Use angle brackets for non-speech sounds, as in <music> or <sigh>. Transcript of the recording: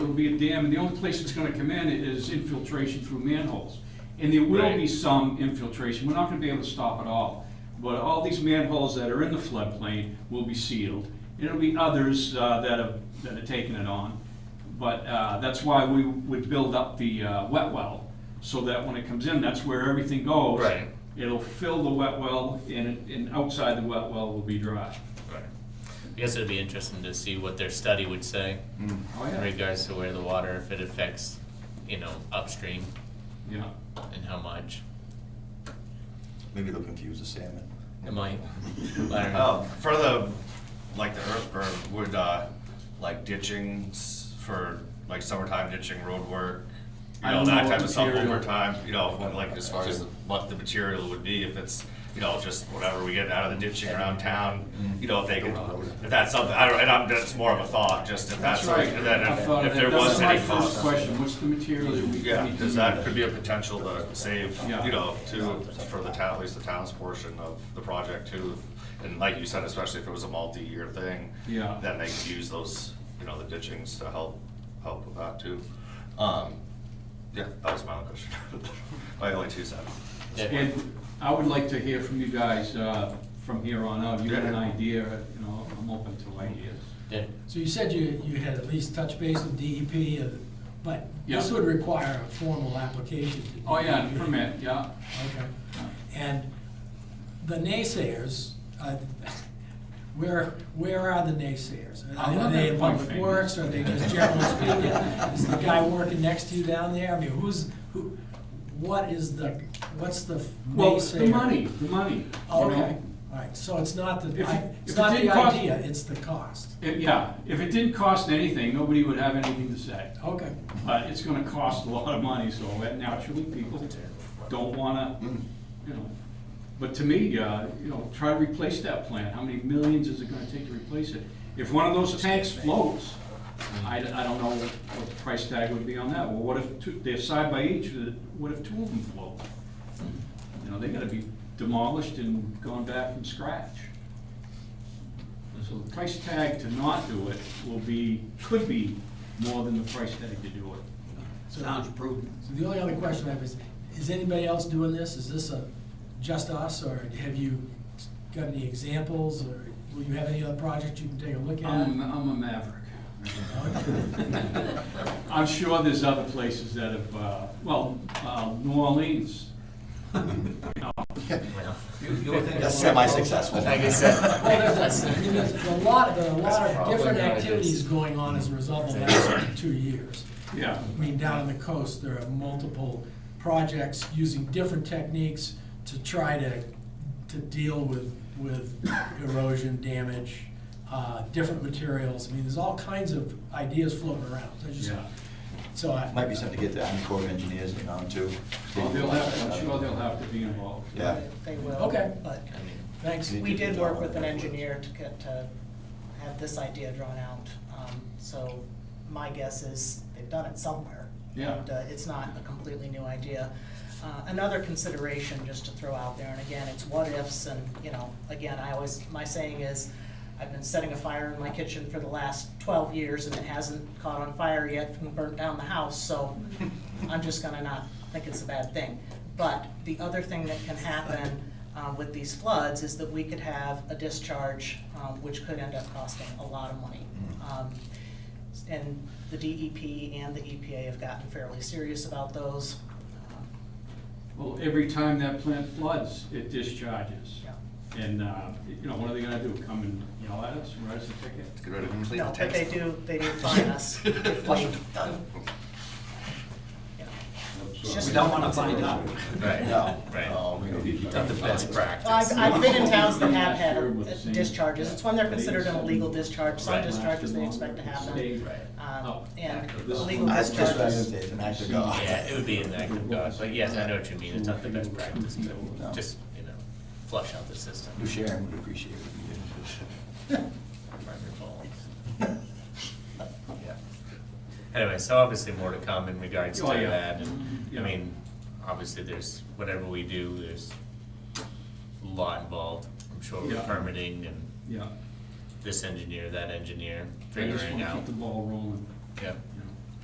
it'll be a dam, and the only place it's gonna come in is infiltration through manholes. And there will be Right. some infiltration, we're not gonna be able to stop it all. But all these manholes that are in the floodplain will be sealed, and it'll be others uh, that have, that are taking it on. But uh, that's why we would build up the uh, wet well, so that when it comes in, that's where everything goes. Right. It'll fill the wet well, and, it- and outside the wet well will be dry. Right. I guess it'd be interesting to see what their study would say Oh, in yeah. regards to where the water, if it affects, you know, upstream Yeah. and how much. Maybe they'll confuse the salmon. It might. I don't know. Um, for the, like the earth berm, would, uh, like ditching s- for, like summertime ditching road work? I You know, don't know that what type of stuff material. over time, you know, when, like as far as what the material would be, if it's, you know, just whatever we get out of the ditching around town, you know, if they could, if that's something, I don't, and I'm, that's more of a thought, just if That's that's, something- right. and then I thought if, of if that. there was any That's my first cost. question, what's the material that we we Yeah, need to cause use? that could be a potential to save, Yeah. you know, to, for the town, at least the town's portion of the project too. And like you said, especially if it was a multi-year thing. Yeah. Then they could use those, you know, the ditchings to help, help with that too. Um, yeah, that was my only question. <laughs> My only two cents. Yeah. And I would like to hear from you guys, uh, from here on out, you have an Yeah. idea, you know, I'm open to ideas. Yeah. So you said you, you had at least touch base with DEP, uh, but this Yeah. would require a formal application to. Oh, yeah, DEP. permit, yeah. Okay. And the naysayers, uh, <laughs> where, where are the naysayers? I'm Are not gonna they in point public fingers. works, <laughs> are they just generally speaking? Is the guy working next to you down there? I mean, who's, who, what is the, what's the Well, naysayer? the money, the money. you know? Okay, all right, so it's not the, If I- it- if it's it not the didn't cost- idea, it's the cost. It- Yeah, if it didn't cost anything, nobody would have anything to say. Okay. But it's gonna cost a lot of money, so that naturally people don't wanna, you know. But to me, uh, you know, try to replace that plant, how many millions is it gonna take to replace it? If one of those tanks floats, I, I don't know what the price tag would be on that, well, what if two, they're side by each, uh, what if two of them float? You know, they gotta be demolished and gone back from scratch. So the price tag to not do it will be, could be more than the price tag to do it. So- So the only other question I have is, is anybody else doing this? Is this a, just us, or have you got any examples, or will you have any other projects you can take a look at? I'm, I'm a maverick. Okay. I'm sure there's other places that have, uh, well, uh, New Orleans. Well, <laughs> That's semi-successful. Like I said. Well, there's a, I mean, there's a lot, there are a lot of different how it is. activities going on as a result of the last two years. Yeah, I mean, down on the coast, there are multiple projects using different techniques to try to, to deal with, with erosion damage, uh, different materials. I mean, there's all kinds of ideas floating around. I just, yeah. so I. Might be something to get the Army Corps of Engineers in on too. Well, they'll have, I'm sure they'll have to be involved. Yeah. They will. Okay. But I mean, Thanks. we did work with an engineer to get, to have this idea drawn out. Um, So my guess is they've done it somewhere. Yeah. And uh, it's not a completely new idea. Uh, Another consideration just to throw out there, and again, it's what ifs and, you know, again, I always, my saying is, I've been setting a fire in my kitchen for the last twelve years and it hasn't caught on fire yet and burnt down the house, so I'm just gonna not think it's a bad thing. But the other thing that can happen um, with these floods is that we could have a discharge, um, which could end up costing a lot of money. Um, And the DEP and the EPA have gotten fairly serious about those. Um, Well, every time that plant floods, it discharges. Yeah. And, uh, you know, what are they gonna do, come and yell at us, write us a ticket? Get rid of complete No, but they text. do, they do fine us. <laughs> if we, you know. It's just- We don't want to find out. Right. No. Right. No, we don't need to- Not the best practice. Well, I've, I've been in towns that have Sure, with the same- had discharges, it's when they're considered an illegal discharge, some Right. discharges they expect to happen. Stay Um, Oh, up. and This is- illegal That's just what I discharges, said, it's an act of God. Yeah, it would be an act of God, but yes, I know what you mean, it's not the best practice, but just, you know, flush out the system. Lou Sharon would appreciate it. Wonderful. <laughs> Yeah. Anyway, so obviously more to come in regards to Oh, yeah. that, and, Yeah. I mean, obviously there's, whatever we do, there's a lot involved, I'm sure, with Yeah. permitting and Yeah. this engineer, that engineer, I just figuring wanna out. keep the ball rolling. Yeah,